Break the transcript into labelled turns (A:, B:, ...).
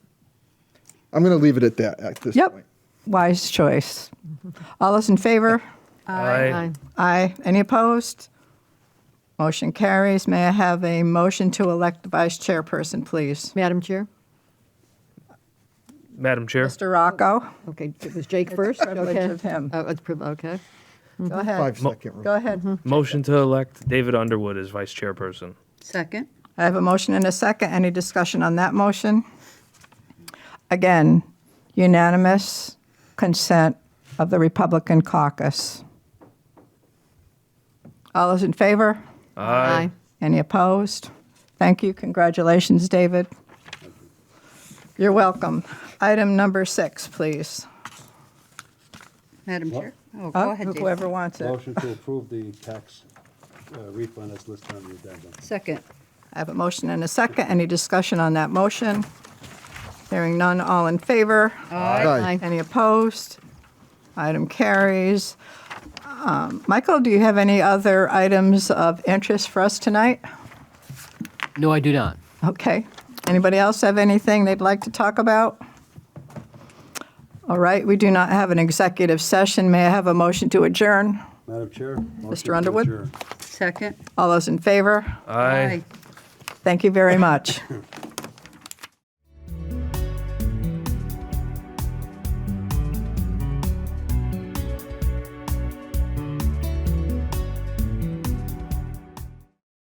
A: I'm going to leave it at that at this
B: Yep.
A: point.
B: Wise choice. All those in favor?
C: Aye.
B: Aye. Any opposed? Motion carries. May I have a motion to elect the vice chairperson, please?
C: Madam Chair?
D: Madam Chair,
B: Mr. Rocco?
C: Okay, it was Jake first?
B: privilege
C: Okay.
B: of him.
C: Oh, it's priv- Okay.
B: Go ahead.
A: Mm-hmm. Five second rule.
B: Go ahead.
D: motion to elect David Underwood as vice chairperson.
E: Second.
B: I have a motion and a second. Any discussion on that motion? Again, unanimous consent of the Republican caucus. All those in favor?
C: Aye.
B: Any opposed? Thank you. Congratulations, David. You're welcome. Item number six, please. Uh,
E: Madam Chair? Oh, go ahead, Jason.
B: Whoever wants it.
F: Motion to approve the tax uh, refund as listed on the addendum.
E: Second.
B: I have a motion and a second. Any discussion on that motion? Hearing none, all in favor?
A: Aye.
B: Any opposed? Item carries. Um, Michael, do you have any other items of interest for us tonight?
G: No, I do not.
B: Okay. Anybody else have anything they'd like to talk about? All right, we do not have an executive session. May I have a motion to adjourn?
F: Madam Chair? motion to
B: Underwood?
F: adjourn.
E: Second.
B: All those in favor?
D: Aye.
B: Thank you very much.